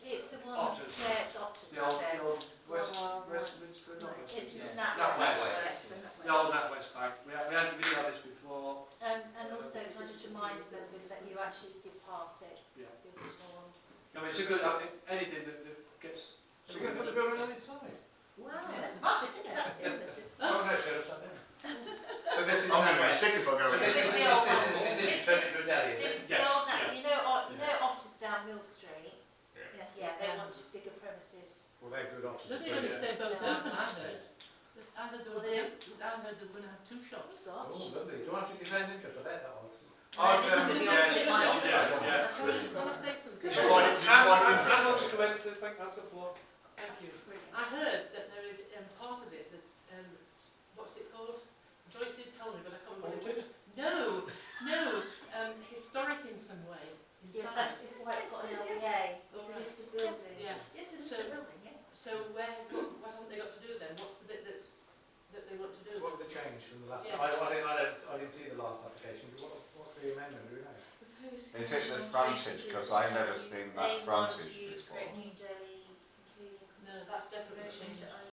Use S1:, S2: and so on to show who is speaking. S1: Um,
S2: it's a good, I think, anything that, that gets.
S3: So we're going to put the building on its side.
S1: Wow, that's much, that's innovative.
S3: Oh, no, sure, upside down.
S2: So this is. no
S4: I'm going to be
S2: way.
S4: sick if I go
S2: Oh, So
S4: in
S2: this
S1: It's the old one. It's-
S2: is, this is, this is,
S4: there.
S2: this is
S3: Daddy, is it?
S1: Just the
S2: Yes,
S1: old,
S2: yeah.
S1: that- you know, Ot- you
S3: Yeah.
S1: know Otters down Mill Street? Um,
S4: Yeah.
S1: Yeah, they wanted bigger premises.
S3: Well, they're good options.
S5: They're going to stay both
S1: Yeah.
S5: open, aren't they? But I heard they were, I heard they were going to have two
S1: Oh,
S3: Oh,
S5: shops.
S1: gosh.
S3: lovely. Do you want to defend interest? I bet that one.
S1: No, this is going to
S2: um,
S1: be
S2: yeah,
S1: opposite my
S2: yeah,
S1: office.
S2: yeah.
S1: That's what it's
S5: Can I
S1: gonna say.
S5: say something?
S4: It's
S2: Yeah.
S4: quite, it's quite
S2: And, and also
S4: interesting.
S2: to wait, to think that's the floor.
S5: Thank you. I heard that there is um, part of it that's, um, s- what's it called? Joyce did tell me, but I can't remember.
S3: Haunted?
S5: No, no, um, historic in some way.
S1: Yes,
S5: Inside.
S1: that is why it's got an LBA, it's a listed building.
S5: Yes.
S1: Yes, it's a
S5: So-
S1: listed building, yeah.
S5: So where, what, what haven't they got to do then? What's the bit that's, that they want to do?
S3: What was the change from the last?
S5: Yes.
S3: I, I, didn't, I, don't, I didn't see the last application. But what, what's the amendment? Do we know?
S4: Is it the Francis? Because I've never seen that
S1: They want
S4: Francis
S1: to use
S4: before.
S1: Great New Day, including
S5: No, that's definitely a
S1: conversion
S5: change.
S1: to